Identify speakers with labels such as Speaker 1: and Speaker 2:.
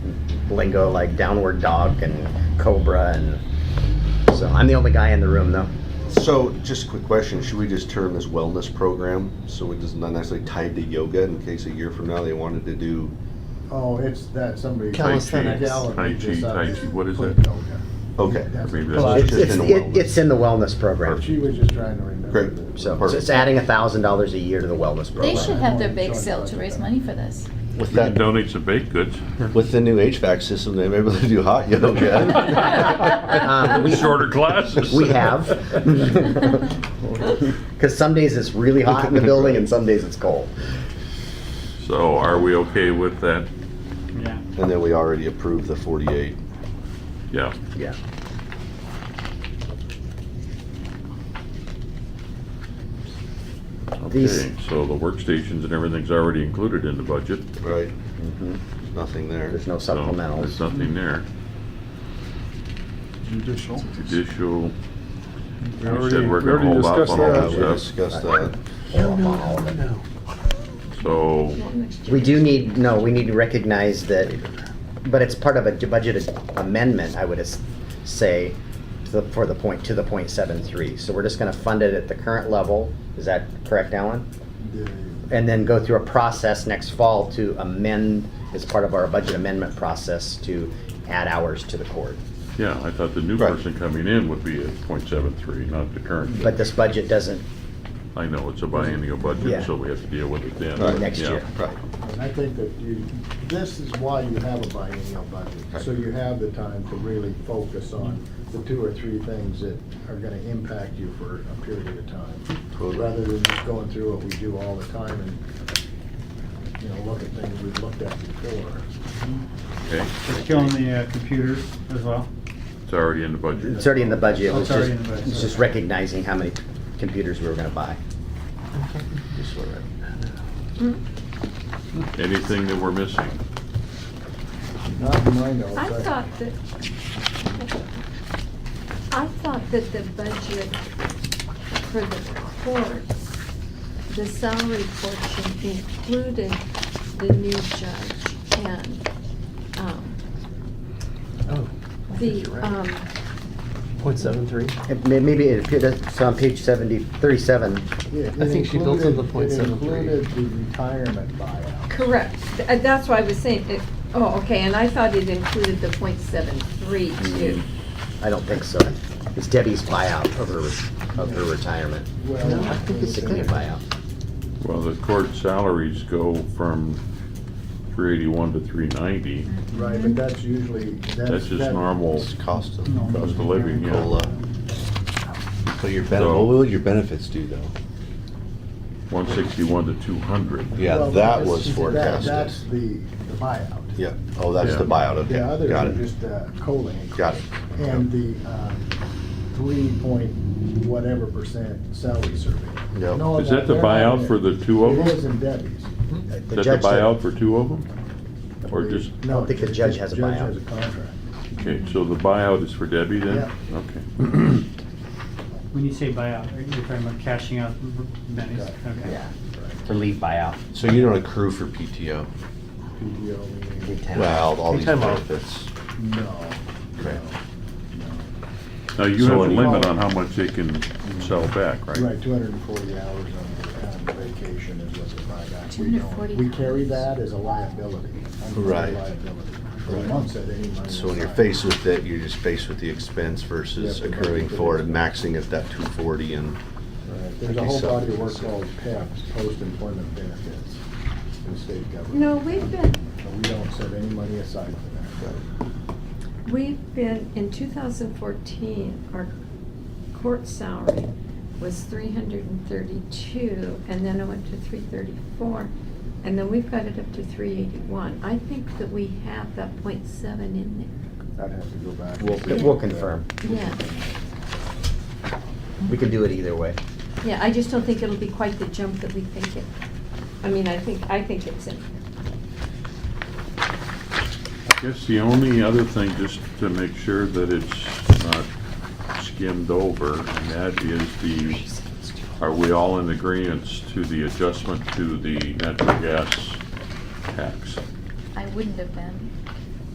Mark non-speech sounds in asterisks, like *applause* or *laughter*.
Speaker 1: lingo like downward dog and cobra and so I'm the only guy in the room though.
Speaker 2: So, just a quick question: Should we just term this wellness program so it is not necessarily tied to yoga? In case a year from now they wanted to do
Speaker 3: Oh, it's that somebody.
Speaker 1: Calisthenics.
Speaker 3: Gallagher
Speaker 4: Tai
Speaker 3: just
Speaker 4: Chi,
Speaker 3: out
Speaker 4: Tai
Speaker 3: just
Speaker 4: Chi, what is
Speaker 3: put
Speaker 4: that?
Speaker 3: yoga.
Speaker 2: okay,
Speaker 3: That's-
Speaker 4: Maybe
Speaker 3: well,
Speaker 4: that's
Speaker 1: It's, it's,
Speaker 2: It's just in the
Speaker 1: it- it's in the wellness program.
Speaker 3: She was just trying to remember.
Speaker 2: Great.
Speaker 3: that.
Speaker 1: So
Speaker 2: Perfect.
Speaker 1: it's adding a thousand dollars a year to the wellness
Speaker 5: They
Speaker 1: program.
Speaker 5: should have their bake sale to raise money for this.
Speaker 2: with
Speaker 4: You can
Speaker 2: that
Speaker 4: donate some baked goods.
Speaker 2: with the new HVAC system, they may be able to do hot *laughs* yoga.
Speaker 1: Um, we-
Speaker 4: *laughs* Shorter classes.
Speaker 1: We
Speaker 4: *laughs*
Speaker 1: have. Because some days it's really hot in the building and some days it's cold.
Speaker 4: So are we okay with that?
Speaker 6: Yeah.
Speaker 2: and then we already approved the 48.
Speaker 4: Yeah.
Speaker 1: Yeah.
Speaker 4: Okay,
Speaker 1: These-
Speaker 4: so the workstations and everything's already included in the budget.
Speaker 2: Right. Nothing there.
Speaker 1: There's no
Speaker 4: so There's
Speaker 1: supplementals.
Speaker 4: nothing there.
Speaker 6: Judicial.
Speaker 4: Judicial,
Speaker 6: We
Speaker 4: we
Speaker 6: already-
Speaker 4: said we're
Speaker 6: we
Speaker 4: gonna
Speaker 6: already
Speaker 4: hold off
Speaker 6: discussed
Speaker 4: on all
Speaker 2: Uh,
Speaker 6: that.
Speaker 4: that.
Speaker 2: we discussed uh, that.
Speaker 4: so
Speaker 1: We do need, no, we need to recognize that, but it's part of a budget amendment, I would as- say, to the- for the point, to the point seven three. So we're just gonna fund it at the current level. Is that correct, Alan?
Speaker 3: Yeah,
Speaker 1: And then go through a process next fall to amend, as part of our budget amendment process, to add hours to the court.
Speaker 4: Yeah, I thought the new
Speaker 2: Right.
Speaker 4: person coming in would be at .73, not the current.
Speaker 1: But this budget doesn't,
Speaker 4: I know, it's a biennial
Speaker 1: Yeah.
Speaker 4: budget, so we have to deal with it then.
Speaker 2: Right.
Speaker 1: Next
Speaker 4: Yeah.
Speaker 1: year.
Speaker 2: Right.
Speaker 3: And I think that you, this is why you have a biennial budget, so you have the time to really focus on the two or three things that are gonna impact you for a period of time.
Speaker 2: Totally.
Speaker 3: Rather than just going through what we do all the time and, you know, look at things we've looked at before.
Speaker 4: Okay,
Speaker 6: It's killing the uh, computer as well.
Speaker 4: it's already in the budget.
Speaker 1: it's already in the budget. It
Speaker 6: Oh,
Speaker 1: was
Speaker 6: it's already
Speaker 1: just-
Speaker 6: in the budget,
Speaker 1: It's just
Speaker 6: okay.
Speaker 1: recognizing how many computers we were gonna buy.
Speaker 2: Just sort of-
Speaker 4: Anything that we're missing?
Speaker 3: Not in my notes.
Speaker 7: I thought that, I thought that the budget for the court, the salary portion included the new judge and, um,
Speaker 8: Oh,
Speaker 7: the, um,
Speaker 8: point seven three.
Speaker 1: It may- Maybe it appeared, it's on page 70, 37.
Speaker 3: It- it
Speaker 8: I think she built in the
Speaker 3: included-
Speaker 8: 0.73.
Speaker 3: It included the retirement buyout.
Speaker 7: correct, Th- uh, that's why I was saying, it, oh, okay, and I thought it included the point seven three too.
Speaker 1: I don't think so. It's Debbie's buyout of her, of her retirement.
Speaker 3: Well,
Speaker 1: No, I think it's a clear buyout.
Speaker 4: Well, the court salaries go from three eighty-one to three ninety.
Speaker 3: Right, but that's usually, that's.
Speaker 4: That's just
Speaker 3: that-
Speaker 4: normal
Speaker 2: It's cost of
Speaker 6: No.
Speaker 4: cost of living, yeah.
Speaker 2: cola. So your ben-
Speaker 4: So-
Speaker 2: what will your benefits do though?
Speaker 4: One sixty-one to two hundred.
Speaker 2: Yeah,
Speaker 3: Well,
Speaker 2: that
Speaker 3: that's-
Speaker 2: was
Speaker 3: that-
Speaker 2: forecasted.
Speaker 3: That's the the buyout.
Speaker 2: Yeah. Oh, that's
Speaker 4: Yeah.
Speaker 2: the buyout. Okay.
Speaker 3: The others
Speaker 2: Got
Speaker 3: are
Speaker 2: it.
Speaker 3: just uh, COLA. increase.
Speaker 2: Got it.
Speaker 3: And the uh, three point whatever percent salary survey.
Speaker 2: Yep.
Speaker 3: No,
Speaker 4: Is that the
Speaker 3: they're not
Speaker 4: buyout
Speaker 3: in
Speaker 4: for
Speaker 3: it.
Speaker 4: the two of
Speaker 3: It is
Speaker 4: them?
Speaker 3: in Debbie's.
Speaker 4: Hmm. Is
Speaker 1: The
Speaker 4: that
Speaker 1: judge
Speaker 4: the
Speaker 1: said-
Speaker 4: buyout for two of them? Or just,
Speaker 3: No,
Speaker 1: I think the judge has a
Speaker 3: judge
Speaker 1: buyout.
Speaker 3: has a contract.
Speaker 4: okay, so the buyout is for Debbie then? Okay.
Speaker 6: When you say buyout, are you talking about cashing out bennies? Okay.
Speaker 1: Yeah, for leave buyout.
Speaker 2: So you don't accrue for PTO.
Speaker 3: PTO, meaning-
Speaker 2: Well, all these
Speaker 8: Time off.
Speaker 2: benefits.
Speaker 3: no.
Speaker 2: Right.
Speaker 4: Now, you
Speaker 2: So
Speaker 4: have a
Speaker 2: it-
Speaker 4: limit on how much they can sell back, right?
Speaker 3: Right, two hundred and forty hours on the on vacation is what the buyback. We don't-
Speaker 5: 240
Speaker 3: We carry
Speaker 5: hours.
Speaker 3: that as a liability. unfunded
Speaker 2: Right.
Speaker 3: liability. For
Speaker 2: Right.
Speaker 3: months at any money
Speaker 2: So when you're
Speaker 3: aside.
Speaker 2: faced with it, you're just faced with the expense versus
Speaker 3: Yeah, but-
Speaker 2: accruing for it and maxing at that two forty and.
Speaker 3: Right. There's a whole body of work called PEPs, post-employment benefits, in the state government.
Speaker 7: No, we've been,
Speaker 3: But we don't set any money aside for that.
Speaker 7: We've been, in 2014, our court salary was 332, and then it went to 334, and then we've got it up to 381. I think that we have that .7 in
Speaker 3: I'd have to go back. and
Speaker 1: We'll,
Speaker 3: see.
Speaker 1: we'll confirm.
Speaker 7: there. Yeah,
Speaker 1: We can do it either way.
Speaker 7: yeah, I just don't think it'll be quite the jump that we think it, I mean, I think, I think it's in.
Speaker 4: I guess the only other thing, just to make sure that it's not skimmed over, and that is the, are we all in agreeance to the adjustment to the natural gas tax?
Speaker 5: I wouldn't have been.